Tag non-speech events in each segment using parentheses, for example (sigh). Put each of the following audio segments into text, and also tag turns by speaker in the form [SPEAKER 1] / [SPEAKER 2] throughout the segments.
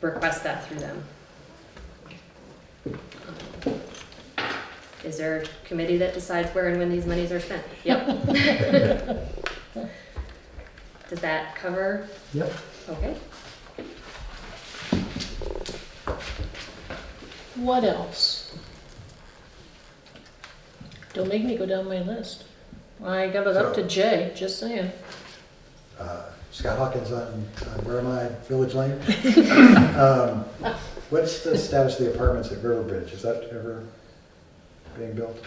[SPEAKER 1] request that through them. Is there a committee that decides where and when these monies are spent?
[SPEAKER 2] (laughs)
[SPEAKER 1] Yep. (laughs) Does that cover?
[SPEAKER 3] Yep.
[SPEAKER 1] Okay.
[SPEAKER 4] What else? Don't make me go down my list. I got it up to
[SPEAKER 3] So-
[SPEAKER 4] J, just saying.
[SPEAKER 3] Uh, Scott Hawkins on, on where am I, Village Lane? Um, What's the status of the apartments at Riverbridge? Is that ever being built?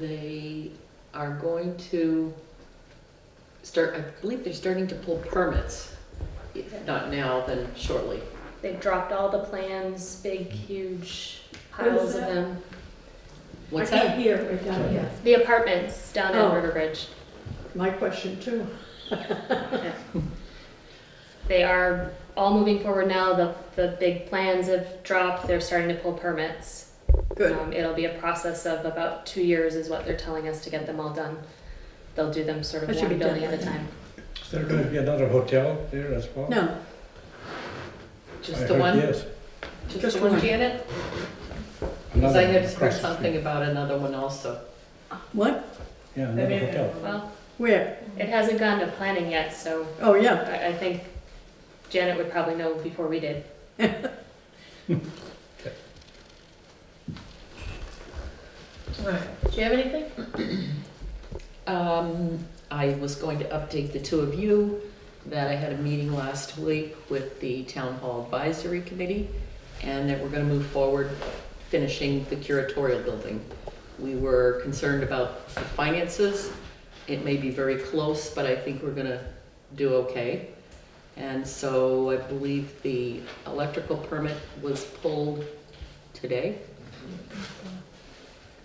[SPEAKER 5] They are going to start, I believe they're starting to pull permits. If not now, then shortly.
[SPEAKER 1] They've dropped all the plans, big, huge piles of
[SPEAKER 2] that?
[SPEAKER 1] them.
[SPEAKER 5] What's
[SPEAKER 2] I
[SPEAKER 5] that?
[SPEAKER 2] can't hear right down here.
[SPEAKER 1] The apartments down at
[SPEAKER 2] Oh.
[SPEAKER 1] River Bridge.
[SPEAKER 2] My question too.
[SPEAKER 1] They are all moving forward now. The, the big plans have dropped. They're starting to pull permits. Um, it'll be a process of about two years is what they're telling us to get them all done. They'll do them sort of
[SPEAKER 2] That should
[SPEAKER 1] one
[SPEAKER 2] be done
[SPEAKER 1] building at a
[SPEAKER 2] by
[SPEAKER 1] time.
[SPEAKER 6] Is there going to be another hotel there as well?
[SPEAKER 2] No,
[SPEAKER 6] I
[SPEAKER 5] Just the
[SPEAKER 6] heard
[SPEAKER 5] one?
[SPEAKER 6] Yes.
[SPEAKER 2] just
[SPEAKER 5] the one,
[SPEAKER 2] one.
[SPEAKER 5] Janet? Because I
[SPEAKER 6] Another
[SPEAKER 5] had
[SPEAKER 6] across
[SPEAKER 5] heard
[SPEAKER 6] the
[SPEAKER 5] something
[SPEAKER 6] street.
[SPEAKER 5] about another one also.
[SPEAKER 2] what?
[SPEAKER 6] Yeah, another hotel.
[SPEAKER 1] Well,
[SPEAKER 2] Where?
[SPEAKER 1] it hasn't gone to planning yet, so
[SPEAKER 2] Oh, yeah.
[SPEAKER 1] I, I think Janet would probably know before we did.
[SPEAKER 4] Alright, do you have anything?
[SPEAKER 5] Um, I was going to update the two of you that I had a meeting last week with the Town Hall Advisory Committee and that we're gonna move forward finishing the curatorial building. We were concerned about the finances. It may be very close, but I think we're gonna do okay. And so I believe the electrical permit was pulled today.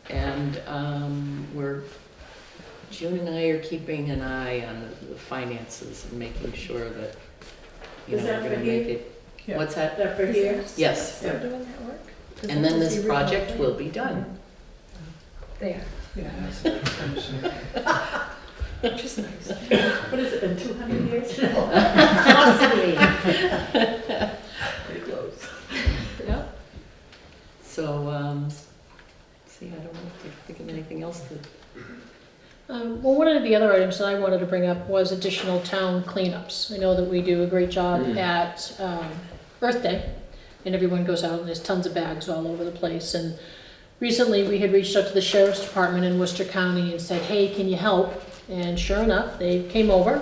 [SPEAKER 5] And, um, we're June and I are keeping an eye on the finances and making sure that, you know,
[SPEAKER 2] Is that
[SPEAKER 5] we're gonna
[SPEAKER 2] for
[SPEAKER 5] make
[SPEAKER 2] here?
[SPEAKER 5] it. What's that?
[SPEAKER 2] That for here?
[SPEAKER 5] Yes.
[SPEAKER 2] Yeah.
[SPEAKER 4] Doing that work? Does
[SPEAKER 5] And
[SPEAKER 4] that
[SPEAKER 5] then
[SPEAKER 4] just
[SPEAKER 5] this
[SPEAKER 4] be
[SPEAKER 5] project
[SPEAKER 4] real?
[SPEAKER 5] will be done.
[SPEAKER 4] There.
[SPEAKER 5] Which is nice.
[SPEAKER 2] What has it been, two hundred
[SPEAKER 1] (laughs)
[SPEAKER 2] years?
[SPEAKER 1] Possibly.
[SPEAKER 5] Pretty close. Yeah. So, um, see, I don't know if I can think of anything else that,
[SPEAKER 4] Um, well, one of the other items that I wanted to bring up was additional town cleanups. I know that we do a great job
[SPEAKER 5] Mm.
[SPEAKER 4] at um, Earth Day, and everyone goes out and there's tons of bags all over the place. And recently, we had reached out to the sheriff's department in Worcester County and said, "Hey, can you help?" And sure enough, they came over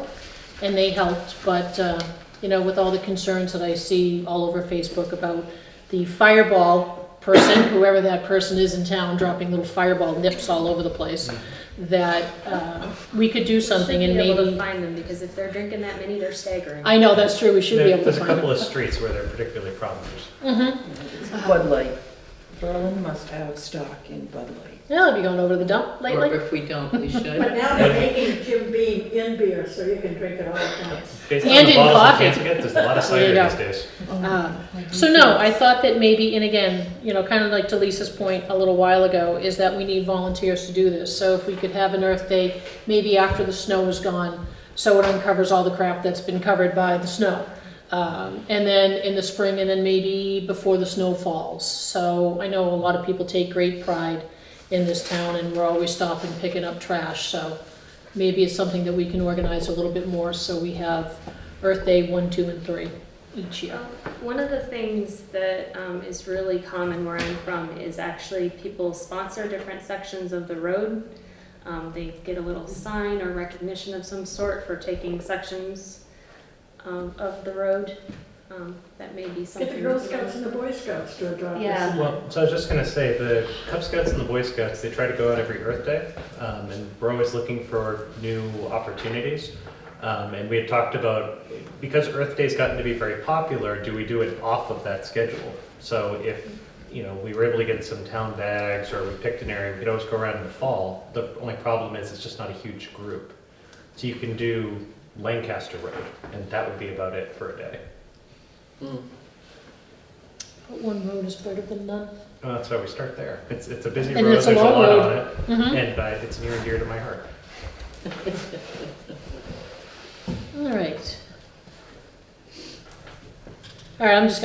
[SPEAKER 4] and they helped. But uh, you know, with all the concerns that I see all over Facebook about the fireball person, whoever that person is in town, dropping little fireball nips all over the place,
[SPEAKER 7] Mm-hmm.
[SPEAKER 4] that uh, we could do something and
[SPEAKER 1] Should Be able to
[SPEAKER 4] maybe,
[SPEAKER 1] find them, because if they're drinking that many, they're staggering.
[SPEAKER 4] I know, that's true, we should be
[SPEAKER 7] There-
[SPEAKER 4] able to
[SPEAKER 7] There's a
[SPEAKER 4] find.
[SPEAKER 7] couple of streets where they're particularly problems.
[SPEAKER 4] Mm-hmm,
[SPEAKER 8] Bud Light. Berlin must have stock in Bud Light.
[SPEAKER 4] yeah, I'll be going over to the dump
[SPEAKER 5] or
[SPEAKER 4] lately.
[SPEAKER 5] if we don't, we should.
[SPEAKER 2] But now they're making Jim Beam in beer, so you can drink it all at once.
[SPEAKER 7] Based on
[SPEAKER 4] And
[SPEAKER 7] the
[SPEAKER 4] in
[SPEAKER 7] bottles
[SPEAKER 4] coffee.
[SPEAKER 7] we can't get, there's a lot
[SPEAKER 4] (laughs)
[SPEAKER 7] of
[SPEAKER 4] There you
[SPEAKER 7] cider
[SPEAKER 4] go.
[SPEAKER 7] these days.
[SPEAKER 4] Uh, So no, I thought that maybe, and again, you know, kind of like to Lisa's point a little while ago, is that we need volunteers to do this. So if we could have an Earth Day, maybe after the snow is gone, so it uncovers all the crap that's been covered by the snow. Um, and then in the spring, and then maybe before the snow falls. So I know a lot of people take great pride in this town, and we're always stopping, picking up trash, so maybe it's something that we can organize a little bit more, so we have Earth Day one, two, and three each year.
[SPEAKER 1] Um, One of the things that um, is really common where I'm from is actually people sponsor different sections of the road. Um, They get a little sign or recognition of some sort for taking sections um, of the road. Um, That may be something.
[SPEAKER 2] Get the Girl
[SPEAKER 1] that-
[SPEAKER 2] Scouts and the Boy Scouts to adopt this.
[SPEAKER 1] Yeah.
[SPEAKER 7] Well, so I was just gonna say, the Cub Scouts and the Boy Scouts, they try to go out every Earth Day, um, and we're always looking for new opportunities. Um, and we had talked about, because Earth Day's gotten to be very popular, do we do it off of that schedule? So if, you know, we were able to get some town bags, or we picked an area, we could always go around in the fall. The only problem is, it's just not a huge group. So you can do Lancaster Road, and that would be about it for a day.
[SPEAKER 5] Mm.
[SPEAKER 4] But One road is better than none.
[SPEAKER 7] Well, that's why we start there. It's, it's a busy
[SPEAKER 4] And
[SPEAKER 7] road,
[SPEAKER 4] it's
[SPEAKER 7] there's
[SPEAKER 4] a
[SPEAKER 7] a
[SPEAKER 4] long
[SPEAKER 7] lot
[SPEAKER 4] road.
[SPEAKER 7] on it.
[SPEAKER 4] Mhm.
[SPEAKER 7] And uh, it's near and dear to my heart.
[SPEAKER 4] All right. All right, I'm just